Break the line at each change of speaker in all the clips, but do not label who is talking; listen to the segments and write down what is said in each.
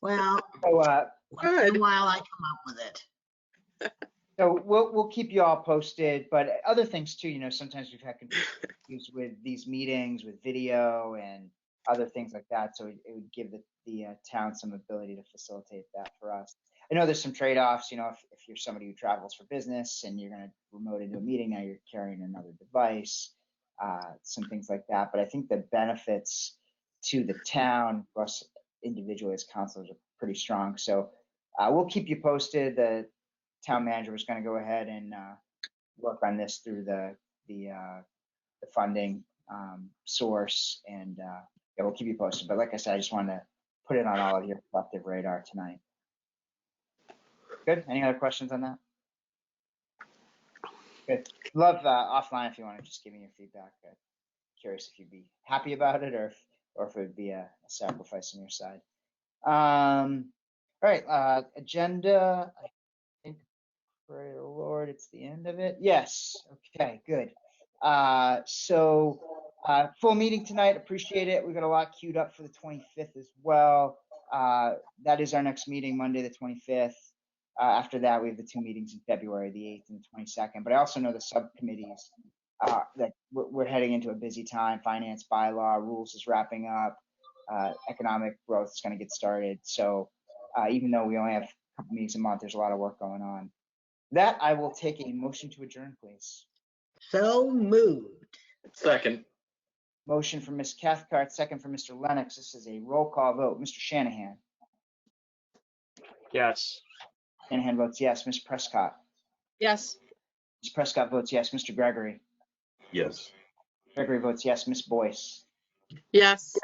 Well,
So, uh,
once in
Good.
a while I come up with it.
so we'll, we'll keep you all posted, but other things too, you know, sometimes we've had issues with these meetings with video and other things like that. So it it would give the, the uh, town some ability to facilitate that for us. I know there's some trade-offs, you know, if, if you're somebody who travels for business and you're going to remote into a meeting, now you're carrying another device, uh, some things like that. But I think the benefits to the town, plus individually as counselors are pretty strong. So uh, we'll keep you posted. The town manager was going to go ahead and uh, work on this through the, the, uh, the funding um, source and uh, yeah, we'll keep you posted. But like I said, I just wanted to put it on all of your collective radar tonight. Good. Any other questions on that? Good. Love uh, offline if you want to just give me your feedback. Uh, curious if you'd be happy about it or if, or if it would be a, a sacrifice on your side. Um, all right. Uh, agenda. I think, pray the Lord, it's the end of it. Yes. Okay. Good. Uh, so, uh, full meeting tonight. Appreciate it. We've got a lot queued up for the 25th as well. Uh, that is our next meeting, Monday, the 25th. Uh, after that, we have the two meetings in February, the 8th and the 22nd. But I also know the subcommittees uh, that we're, we're heading into a busy time. Finance bylaw, rules is wrapping up. Uh, economic growth is going to get started. So, uh, even though we only have a couple meetings a month, there's a lot of work going on. That I will take a motion to adjourn, please.
So moved.
Second,
Motion from Ms. Cathcart, second from Mr. Lennox. This is a roll call vote. Mr. Shanahan.
Yes.
Shanahan votes yes. Ms. Prescott.
Yes.
Ms. Prescott votes yes. Mr. Gregory.
Yes.
Gregory votes yes. Ms. Boyce.
Yes.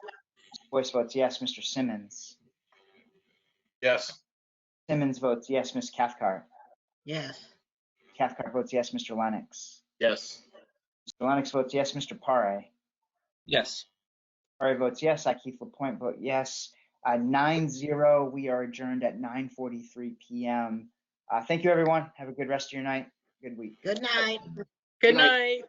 Boyce votes yes. Mr. Simmons.
yes.
Simmons votes yes. Ms. Cathcart.
Yes.
Cathcart votes yes. Mr. Lennox.
Yes.
Mr. Lennox votes yes. Mr. Pare.
Yes.
Pare votes yes. I, Keith Lapointe, vote yes. Uh, nine zero. We are adjourned at 9:43 p.m. Uh, thank you, everyone. Have a good rest of your night. Good week.
Good night.
Good
Good night.
night.